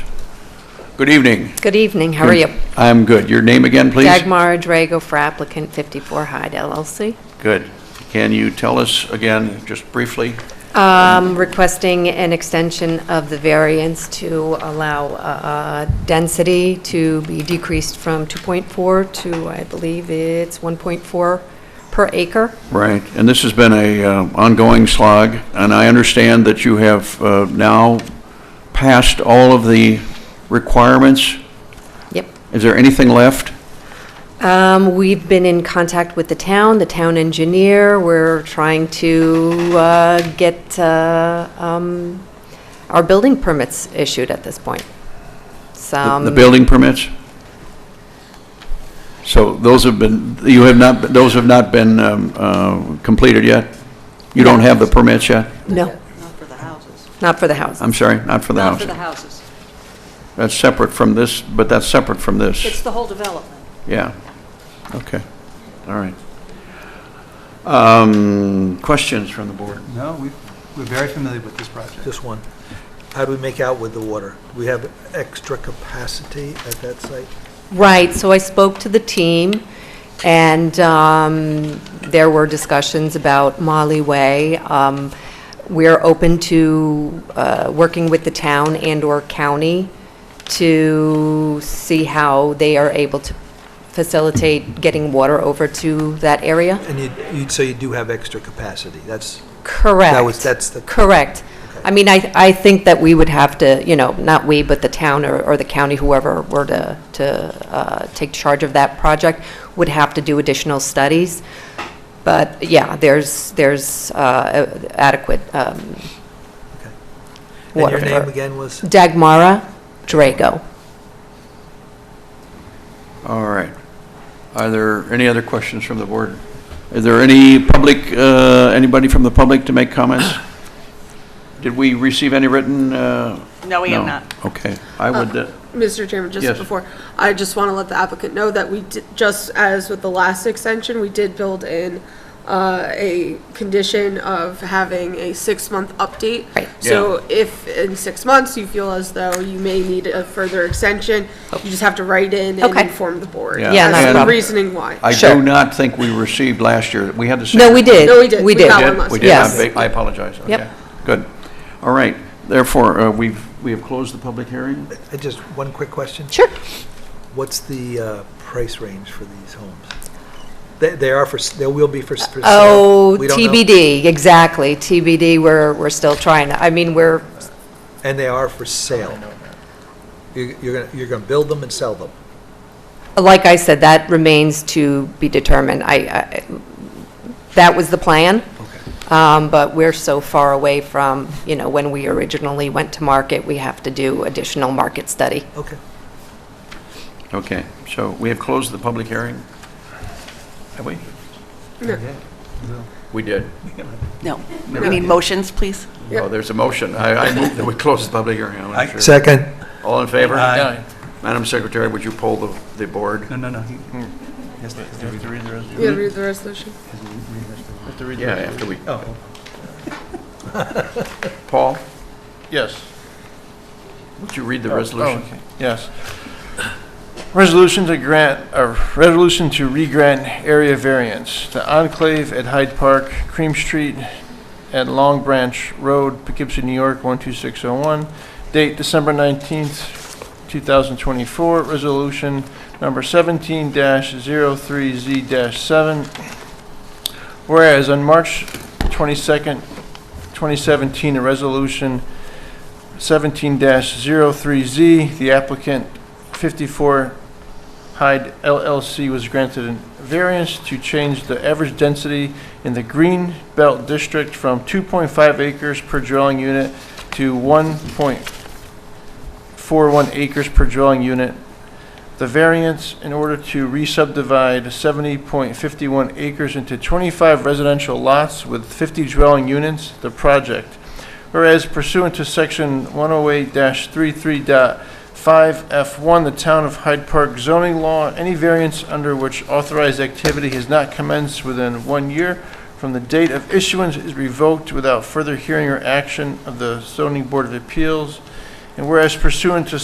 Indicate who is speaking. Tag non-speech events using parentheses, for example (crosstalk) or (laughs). Speaker 1: Good evening.
Speaker 2: Good evening, how are you?
Speaker 1: I'm good. Your name again, please?
Speaker 2: Dagmar Drago for applicant 54 Hyde LLC.
Speaker 1: Good. Can you tell us again, just briefly?
Speaker 2: Um, Requesting an extension of the variance to allow uh, density to be decreased from 2.4 to, I believe it's 1.4 per acre.
Speaker 1: Right, and this has been a uh, ongoing slog, and I understand that you have uh, now passed all of the requirements.
Speaker 2: Yep.
Speaker 1: Is there anything left?
Speaker 2: Um, We've been in contact with the town, the town engineer. We're trying to uh, get uh, um, our building permits issued at this point.
Speaker 1: The-
Speaker 2: Some-
Speaker 1: The building permits? So those have been, you have not, those have not been um, uh, completed yet? You don't have the permits yet?
Speaker 2: No.
Speaker 3: Not for the houses.
Speaker 2: Not for the houses.
Speaker 1: I'm sorry, not for the
Speaker 3: Not
Speaker 1: house.
Speaker 3: for the houses.
Speaker 1: That's separate from this, but that's separate from this.
Speaker 3: It's the whole development.
Speaker 1: Yeah, okay, all right. Um, Questions from the board?
Speaker 4: No, we, we're very familiar with this project.
Speaker 5: Just one. How do we make out with the water? Do we have extra capacity at that site?
Speaker 2: Right, so I spoke to the team, and um, there were discussions about Molly Way. Um, We're open to uh, working with the town and/or county to see how they are able to facilitate getting water over to that area.
Speaker 5: And you, you, so you do have extra capacity, that's,
Speaker 2: Correct.
Speaker 5: That was- that's the-
Speaker 2: Correct. I mean, I, I think that we would have to, you know, not we, but the town or, or the county, whoever were to, to uh, take charge of that project, would have to do additional studies. But, yeah, there's, there's uh, adequate um,
Speaker 5: and
Speaker 2: water.
Speaker 5: your
Speaker 2: for-
Speaker 5: name again was?
Speaker 2: Dagmara Drago.
Speaker 1: All right. Are there any other questions from the board? Is there any public, uh, anybody from the public to make
Speaker 3: (coughs)
Speaker 1: comments? Did we receive any written? uh,
Speaker 3: No, we have not.
Speaker 1: Okay, I would, uh,
Speaker 6: Mr. Chairman,
Speaker 1: Yes.
Speaker 6: just before, I just want to let the applicant know that we, di- just as with the last extension, we did build in uh, a condition of having a six-month update.
Speaker 2: Right.
Speaker 6: So if in six months you feel as though you may need a further extension, you just have to write in and
Speaker 2: Okay.
Speaker 6: inform the board.
Speaker 1: Yeah.
Speaker 2: Yeah, not a
Speaker 6: As the
Speaker 2: problem.
Speaker 6: reasoning why.
Speaker 1: I
Speaker 2: Sure.
Speaker 1: do not think we received last year. We had the same.
Speaker 2: No, we did.
Speaker 6: No, we did.
Speaker 2: We
Speaker 6: We
Speaker 2: did.
Speaker 6: got
Speaker 1: We
Speaker 6: one
Speaker 1: did?
Speaker 6: last
Speaker 1: We
Speaker 6: time.
Speaker 1: did.
Speaker 2: Yes.
Speaker 1: I ba- I apologize.
Speaker 2: Yep.
Speaker 1: Okay. Good. All right. Therefore, uh, we've, we have closed the public hearing.
Speaker 5: I Just one quick question.
Speaker 2: Sure.
Speaker 5: What's the uh, price range for these homes? They, they are for, s- they will be for s- for sale.
Speaker 2: Oh,
Speaker 5: We don't know.
Speaker 2: TBD, exactly, TBD, we're, we're still trying, to- I mean, we're,
Speaker 5: And they are for sale. You- You're gonna, you're gonna build them and sell them.
Speaker 2: Like I said, that remains to be determined. I- I, that was the plan,
Speaker 5: Okay.
Speaker 2: um, but we're so far away from, you know, when we originally went to market, we have to do additional market study.
Speaker 5: Okay.
Speaker 1: Okay, so we have closed the public hearing? Have we? We did.
Speaker 3: No. We need motions, please.
Speaker 1: Oh, there's a motion. I, I move that we close the public hearing. I'm not sure.
Speaker 5: Second.
Speaker 1: All in favor?
Speaker 4: Aye.
Speaker 1: Madam Secretary, would you poll the, the board?
Speaker 4: (laughs) No, no, no. he- Yes, they- they read the resolution.
Speaker 6: You gotta read the resolution.
Speaker 4: Have to read the
Speaker 1: Yeah, after we,
Speaker 4: Oh,
Speaker 1: Paul,
Speaker 7: Yes.
Speaker 1: would you read the
Speaker 7: Oh,
Speaker 1: resolution?
Speaker 7: oh, okay. Yes. Resolution to grant, a resolution to re-grant area variance to Enclave at Hyde Park, Cream Street at Long Branch Road, Poughkeepsie, New York, 12601. Date December 19th, 2024. Resolution number 17-03Z-7. Whereas on March 22nd, 2017, a resolution 17-03Z, the applicant 54 Hyde LLC was granted a variance to change the average density in the Green Belt District from 2.5 acres per dwelling unit to 1.41 acres per dwelling unit. The variance in order to re-subdivide 70.51 acres into 25 residential lots with 50 dwelling units, the project. Whereas pursuant to Section 108-33.5F1, the Town of Hyde Park zoning law, any variance under which authorized activity has not commenced within one year from the date of issuance is revoked without further hearing or action of the Zoning Board of Appeals. And whereas pursuant to